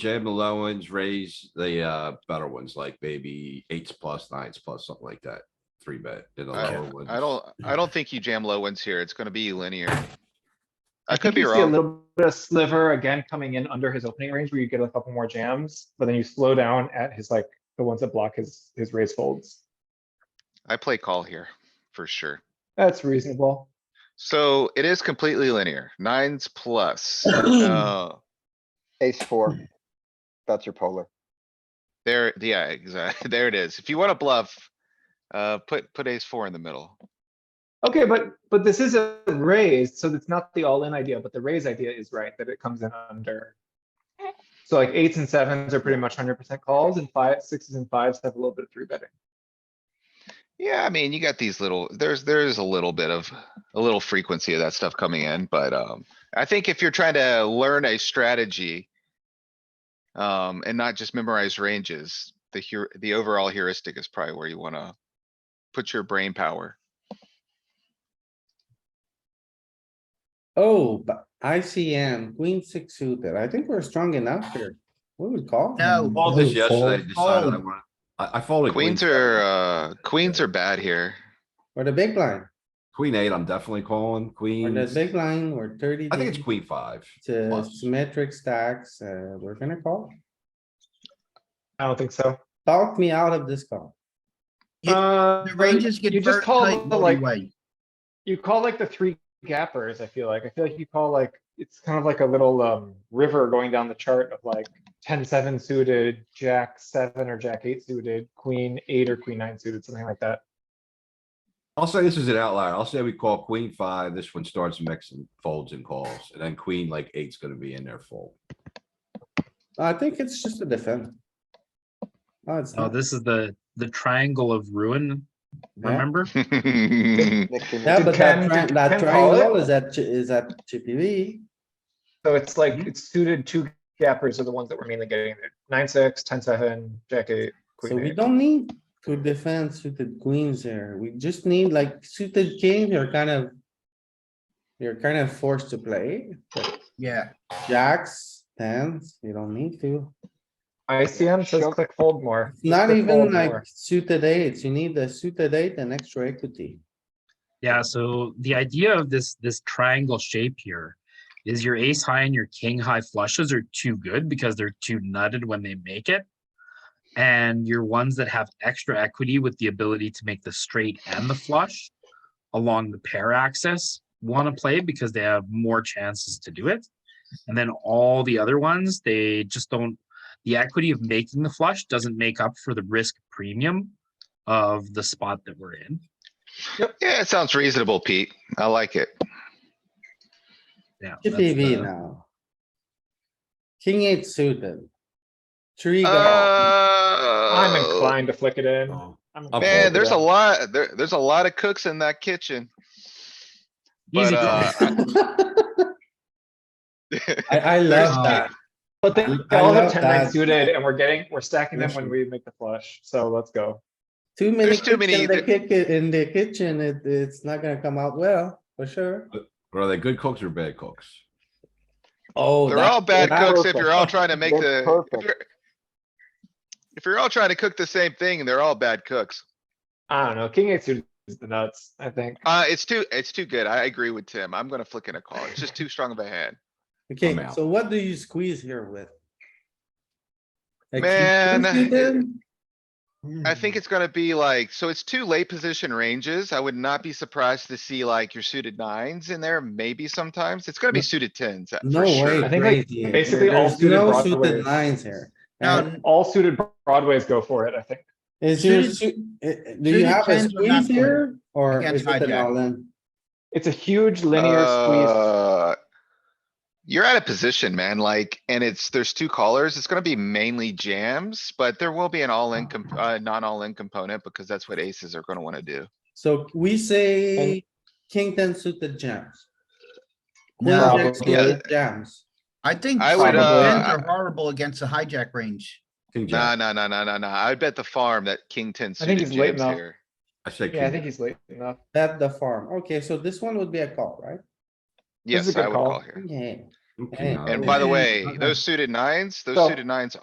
jam the low ones, raise the, uh, better ones, like maybe eights plus, nines plus, something like that. Three bet in the I lower ones. I don't, I don't think you jam low ones here. It's gonna be linear. I think could be you see A wrong. little bit of sliver again coming in under his opening range where you get a couple more jams, but then you slow down at his like, the ones that block his, his raise folds. I play call here, for sure. That's reasonable. So it is completely linear, nines plus. Uh, Ace four. That's your polar. There, yeah, exactly. There it is. If you wanna bluff, uh, put, put ace four in the middle. Okay, but, but this is a raise, so it's not the all-in idea, but the raise idea is right, that it comes in under. So like eights and sevens are pretty much hundred percent calls and five, sixes and fives have a little bit of three betting. Yeah, I mean, you got these little, there's, there's a little bit of, a little frequency of that stuff coming in, but, um, I think if you're trying to learn a strategy. Um, and not just memorize ranges, the here, the overall heuristic is probably where you wanna put your brain power. Oh, but ICM, queen six suited. I think we're strong enough here. We would call. Oh, No. Called this yesterday, Fold. decided I Fold. wanted, I, I folded. Queens seven. are, uh, queens are bad here. Or the big line, Queen eight, I'm definitely calling, or queen, the I big line, we're thirty. think it's deep, queen five. it's a plus. symmetric stacks, uh, we're gonna call. I don't think so. Talk me out of this call. It- Uh, The ranges get you just very call tight the, like, anyway. You call like the three gappers, I feel like. I feel like you call like, it's kind of like a little um river going down the chart of like ten, seven suited, jack seven or jack eight suited, queen eight or queen nine suited, something like that. I'll say this is an outlier. I'll say we call queen five, this one starts mixing folds and calls, and then queen like eight's gonna be in there full. I think it's just a defend. Oh, it's Oh, not. this is the, the triangle of ruin, Yeah. remember? Mixing Yeah, with- Did but that, Ken- tri- did that Ken call it? triangle is at, chi- is at chippy V. So it's Mhm. like, it's suited two gappers are the ones that we're mainly getting there. Nine, six, ten, seven, jack eight, So queen we eight. don't need to defend suited queens here. We just need like suited king, you're kind of. You're kind of forced to play. Yeah, Jacks, tens, you don't need to. ICM says Shove- click fold more. It's Not click even fold like more. suited eights. You need the suited eight and extra equity. Yeah, so the idea of this, this triangle shape here is your ace high and your king high flushes are too good because they're too nutted when they make it. And your ones that have extra equity with the ability to make the straight and the flush along the pair axis want to play because they have more chances to do it. And then all the other ones, they just don't, the equity of making the flush doesn't make up for the risk premium of the spot that we're in. Yeah, it sounds reasonable, Pete. I like it. Yeah. that's Chippy V the- now. King eight suited. Three. Uh, guys. I'm I'm Uh, inclined to flick it in. I'm I'm inclined to Man, there's a that. lot, there, there's a lot of cooks in that kitchen. But, Easy. uh, I, I love There's- that. But they I- they I all have love ten, nine that. suited and we're getting, we're stacking them when we make the flush. So let's go. Too many There's too cooks many in the kick- in the kitchen. It, it's not gonna come out well, for sure. But Are they good cooks or bad cooks? Oh. They're that- all bad that- cooks if you're all trying to make That's the. if perfect. you're- If you're all trying to cook the same thing, they're all bad cooks. I don't know. King eight suited is the nuts, I think. Uh, it's too, it's too good. I agree with Tim. I'm gonna flick in a call. It's just too strong of a hand. Okay, I'm out. so what do you squeeze here with? Like, Man, uh, you suited? I think it's gonna be like, so it's two late position ranges. I would not be surprised to see like your suited nines in there, maybe sometimes. It's gonna be suited tens. uh, for No way. sure. I think, like, crazy. basically all There's suited no Broadways. suited Lines here. And no, All suited Broadways go for it, I think. Is your, suited- suit- uh, uh, do you suited have a tens are not squeeze here or Against is it an hijack. all in? It's a huge linear squeeze. Uh, You're out of position, man, like, and it's, there's two callers. It's gonna be mainly jams, but there will be an all-in, comp- uh, non-all-in component because that's what aces are gonna wanna do. So we say king ten suited jams. Queen No, jack Probably. suited Jams. I think I would, tens uh, are horrible against the hijack range. King No, jack, no, no, no, no, no. I bet the farm that king ten I think suited he's late jams now. here. I say Yeah, I king think he's late enough. At the farm. Okay, so this one would be a call, right? This is a Yes, good I would call. call here. Yeah. I'm king And high. And by the Yeah. way, those suited nines, those So- suited nines